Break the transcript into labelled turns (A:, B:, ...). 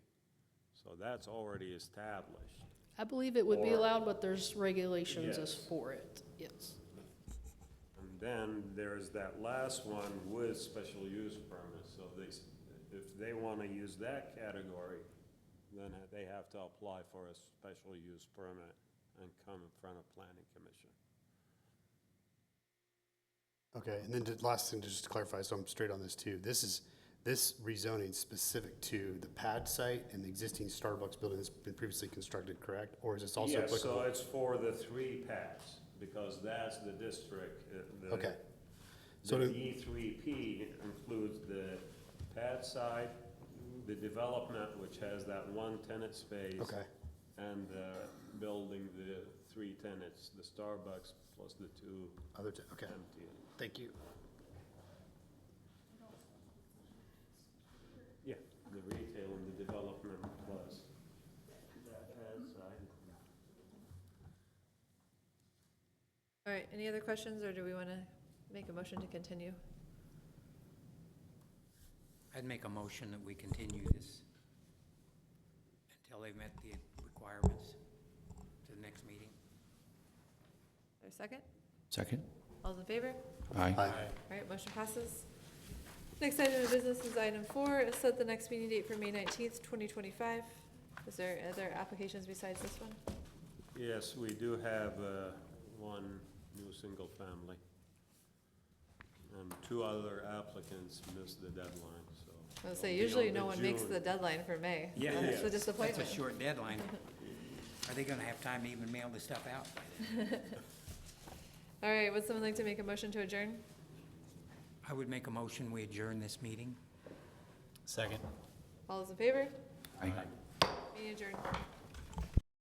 A: So that's already established.
B: I believe it would be
A: Or-
B: allowed, but there's regulations as
A: Yes.
B: for it, yes.
A: And then there's that last one with special use permits, so they, s- if they wanna use that category, then they have to apply for a special use permit and come in front of planning commission.
C: Okay, and then the last thing, to just clarify, so I'm straight on this too. This is, this rezoning specific to the pad site and the existing Starbucks building that's been previously constructed, correct? Or is this also
A: Yeah, so
C: applicable?
A: it's for the three pads, because that's the district, uh, the.
C: Okay.
A: The
C: So do-
A: D three P includes the pad side, the development, which has that one tenant space.
C: Okay.
A: And the building, the three tenants, the Starbucks plus the two
C: Other, t- okay,
A: empty.
C: thank you.
A: Yeah, the retail and the development plus that pad side.
D: All right, any other questions, or do we want to make a motion to continue?
E: I'd make a motion that we continue this until they've met the requirements to the next meeting.
D: Or second?
F: Second?
D: All's in favor?
F: Aye.
C: Aye.
D: All right, motion passes. Next item of business is item four, is set the next meeting date for May nineteenth, twenty twenty-five. Is there other applications besides this one?
A: Yes, we do have uh, one new single family. And two other applicants missed the deadline, so.
D: I would say
A: it'll be
D: usually
A: on the
D: no one makes
A: June.
D: the deadline for May.
E: Yeah,
D: That's
A: yeah.
D: the
E: That's a
D: disappointment.
E: short deadline. Are they gonna have time to even mail this stuff out? by then?
D: All right, would someone like to make a motion to adjourn?
E: I would make a motion, we adjourn this meeting.
F: Second.
D: All those in favor?
F: Aye.
D: Meeting adjourned.